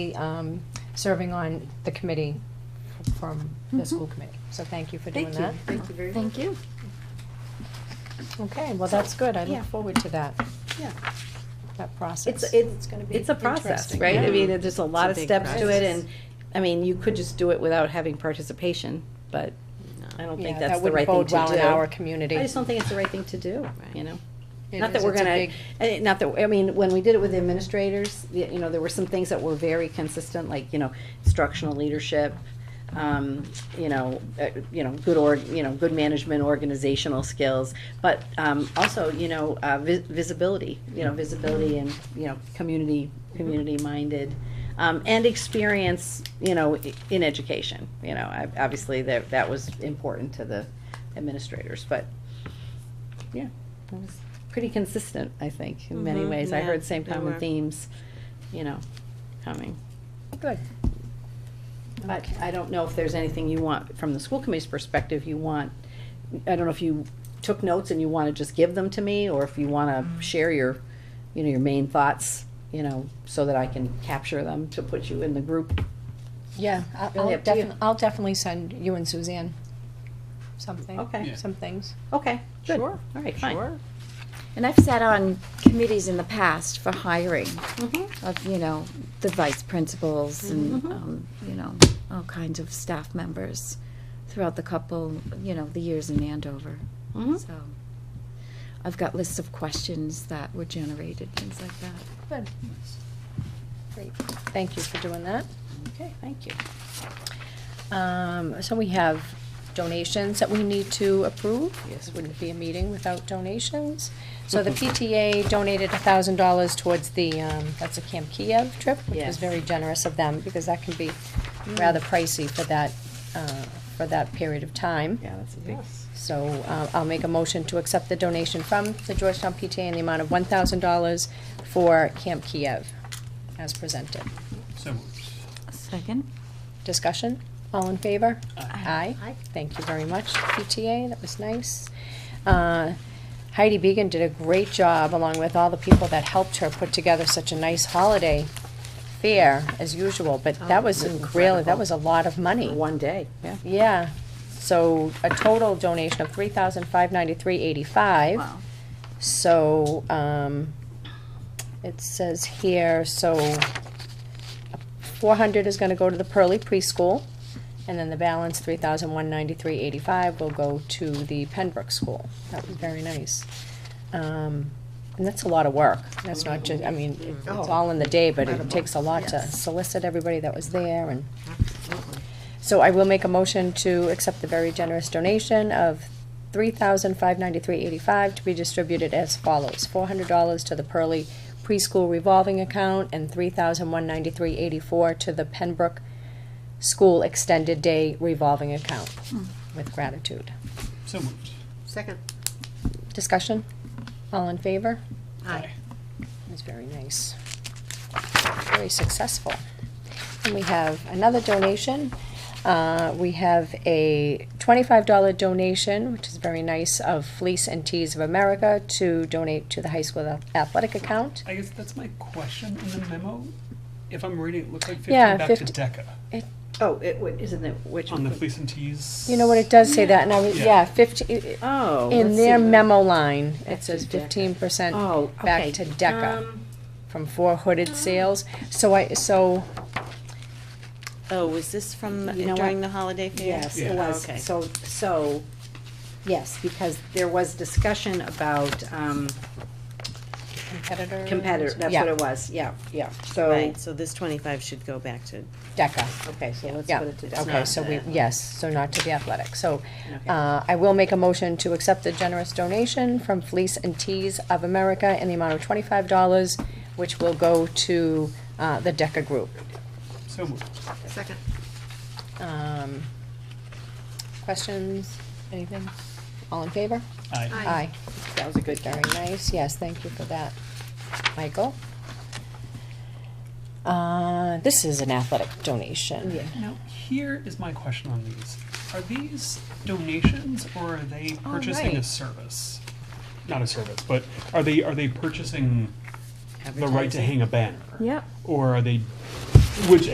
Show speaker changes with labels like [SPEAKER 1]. [SPEAKER 1] um, serving on the committee from the school committee. So thank you for doing
[SPEAKER 2] Mm-hmm. Thank you.
[SPEAKER 1] that.
[SPEAKER 2] Thank you very much.
[SPEAKER 3] Thank you.
[SPEAKER 1] Okay, well, that's good. I
[SPEAKER 3] Yeah.
[SPEAKER 1] look forward to that,
[SPEAKER 2] Yeah.
[SPEAKER 1] that
[SPEAKER 2] It's,
[SPEAKER 1] process.
[SPEAKER 2] it's,
[SPEAKER 1] gonna be
[SPEAKER 2] it's a process,
[SPEAKER 1] interesting.
[SPEAKER 2] right? I
[SPEAKER 1] Yeah.
[SPEAKER 2] mean, there's a lot of
[SPEAKER 4] It's a big
[SPEAKER 2] steps to it
[SPEAKER 4] process.
[SPEAKER 2] and, I mean, you could just do it without having participation, but I don't
[SPEAKER 1] Yeah,
[SPEAKER 2] think
[SPEAKER 1] that
[SPEAKER 2] that's the
[SPEAKER 1] wouldn't
[SPEAKER 2] right thing to
[SPEAKER 1] bode
[SPEAKER 2] do.
[SPEAKER 1] well in our community.
[SPEAKER 2] I just don't think it's the right thing to do,
[SPEAKER 4] Right.
[SPEAKER 2] you know?
[SPEAKER 1] It
[SPEAKER 2] Not that
[SPEAKER 1] is.
[SPEAKER 2] we're
[SPEAKER 1] It's a
[SPEAKER 2] gonna,
[SPEAKER 1] big-
[SPEAKER 2] eh, not that, I mean, when we did it with administrators, y- you know, there were some things that were very consistent, like, you know, instructional leadership, um, you know, uh, you know, good org, you know, good management, organizational skills, but, um, also, you know, uh, vi- visibility, you know, visibility and, you know, community, community-minded, um, and experience, you know, i- in education, you know, I- obviously, that, that was important to the administrators, but, yeah, it was pretty consistent, I think, in many
[SPEAKER 4] Mhm,
[SPEAKER 2] ways. I
[SPEAKER 4] yeah,
[SPEAKER 2] heard same
[SPEAKER 4] they
[SPEAKER 2] common
[SPEAKER 4] were.
[SPEAKER 2] themes, you know, coming.
[SPEAKER 1] Good.
[SPEAKER 2] But I don't know if there's anything you want, from the school committee's perspective, you want, I don't know if you took notes and you wanna just give them to me, or if you wanna
[SPEAKER 4] Mm.
[SPEAKER 2] share your, you know, your main thoughts, you know, so that I can capture them to put you in the group.
[SPEAKER 1] Yeah, I-
[SPEAKER 2] Really
[SPEAKER 1] I'll
[SPEAKER 2] up to you.
[SPEAKER 1] definitely, I'll definitely send you and Suzanne something.
[SPEAKER 2] Okay.
[SPEAKER 5] Yeah.
[SPEAKER 1] Some things.
[SPEAKER 2] Okay, good.
[SPEAKER 1] Sure,
[SPEAKER 2] All right, fine.
[SPEAKER 1] Sure.
[SPEAKER 3] And I've sat on committees in the past for hiring
[SPEAKER 2] Mhm.
[SPEAKER 3] of, you know, the vice principals and,
[SPEAKER 2] Mhm.
[SPEAKER 3] um, you know, all kinds of staff members throughout the couple, you know, the years in Andover.
[SPEAKER 2] Mhm.
[SPEAKER 3] So I've got lists of questions that were generated, things like that.
[SPEAKER 1] Good. Great. Thank you for doing that.
[SPEAKER 2] Okay, thank you.
[SPEAKER 1] Um, so we have donations that we need to approve.
[SPEAKER 2] Yes. Mm-hmm.
[SPEAKER 1] This Wouldn't be a meeting without donations. So the PTA donated a thousand dollars towards the, um, that's a Camp Kiev trip, which was
[SPEAKER 2] Yes. Mm.
[SPEAKER 1] very generous of them, because that can be rather pricey for that, uh, for that period of time.
[SPEAKER 2] Yeah, that's a big.
[SPEAKER 1] So, uh, I'll make a motion to accept the donation from the Georgetown PTA in the amount of one thousand dollars for Camp Kiev, as presented.
[SPEAKER 5] So moved.
[SPEAKER 3] Second?
[SPEAKER 1] Discussion? All in favor?
[SPEAKER 3] Aye.
[SPEAKER 1] Aye. Thank you very much, PTA, that was nice. Uh, Heidi Beegan did a great job, along with all the people that helped her put together such a nice holiday fair, as usual, but that was really, that was a lot of money.
[SPEAKER 2] One day, yeah.
[SPEAKER 1] Yeah, so a total donation of three thousand five ninety-three eighty-five.
[SPEAKER 3] Wow.
[SPEAKER 1] So, um, it says here, so four hundred is gonna go to the Pearly Preschool, and then the balance, three thousand one ninety-three eighty-five, will go to the Penbrook School. That was very nice. Um, and that's a lot of work. That's not just, I mean, it- it's all in the day, but it takes a lot to solicit everybody that was there and. So I will make a motion to accept the very generous donation of three thousand five ninety-three eighty-five to be distributed as follows. Four hundred dollars to the Pearly Preschool Revolving Account and three thousand one ninety-three eighty-four to the Pembroke School Extended Day Revolving Account. With gratitude.
[SPEAKER 5] So moved.
[SPEAKER 4] Second.
[SPEAKER 1] Discussion? All in favor?
[SPEAKER 5] Aye.
[SPEAKER 1] It was very nice. Very successful. And we have another donation. Uh, We have a twenty-five dollar donation, which is very nice, of Fleece and Tees of America to donate to the high school athletic account.
[SPEAKER 5] I guess that's my question in the memo. If I'm reading, it looks like
[SPEAKER 1] Yeah,
[SPEAKER 5] fifteen back
[SPEAKER 1] 50
[SPEAKER 5] to DECA
[SPEAKER 2] Oh, it, wa- isn't it, which?
[SPEAKER 5] on the fleece and tees.
[SPEAKER 1] You know what, it does say that, and I was,
[SPEAKER 5] Yeah.
[SPEAKER 1] yeah, fifty,
[SPEAKER 2] Oh.
[SPEAKER 1] in
[SPEAKER 2] let's
[SPEAKER 1] their
[SPEAKER 2] see.
[SPEAKER 1] memo line, it
[SPEAKER 2] Back
[SPEAKER 1] says
[SPEAKER 2] to DECA.
[SPEAKER 1] fifteen percent
[SPEAKER 2] Oh, okay.
[SPEAKER 1] back to DECA
[SPEAKER 2] Um,
[SPEAKER 1] from four hooded sales. So I, so
[SPEAKER 4] Oh, was this from
[SPEAKER 2] You know
[SPEAKER 4] during
[SPEAKER 2] what?
[SPEAKER 4] the holiday fair?
[SPEAKER 2] Yes, it
[SPEAKER 5] Yeah.
[SPEAKER 2] was,
[SPEAKER 4] Okay.
[SPEAKER 2] so, so, yes, because there was discussion about, um,
[SPEAKER 1] competitor.
[SPEAKER 2] competitor, that's
[SPEAKER 1] Yeah.
[SPEAKER 2] what it was, yeah, yeah, so,
[SPEAKER 4] Right, so this twenty-five should go back to,
[SPEAKER 1] DECA.
[SPEAKER 2] okay, so let's
[SPEAKER 1] Yeah,
[SPEAKER 2] put it to that.
[SPEAKER 1] okay, so we,
[SPEAKER 4] that.
[SPEAKER 1] yes, so not to the athletic. So,
[SPEAKER 2] Okay.
[SPEAKER 1] uh, I will make a motion to accept the generous donation from Fleece and Tees of America in the amount of twenty-five dollars, which will go to, uh, the DECA group.
[SPEAKER 5] So moved.
[SPEAKER 4] second.
[SPEAKER 1] Um, questions, anything? All in favor?
[SPEAKER 5] Aye.
[SPEAKER 1] Aye.
[SPEAKER 2] That was a good
[SPEAKER 1] Very
[SPEAKER 2] guy.
[SPEAKER 1] nice, yes, thank you for that, Michael. Uh, this is an athletic donation.
[SPEAKER 5] Now, here is my question on these. Are these donations or are they purchasing a
[SPEAKER 1] right.
[SPEAKER 5] service? Not a service, but are they, are they purchasing the right to hang a banner?
[SPEAKER 3] Yep.
[SPEAKER 5] Or are they which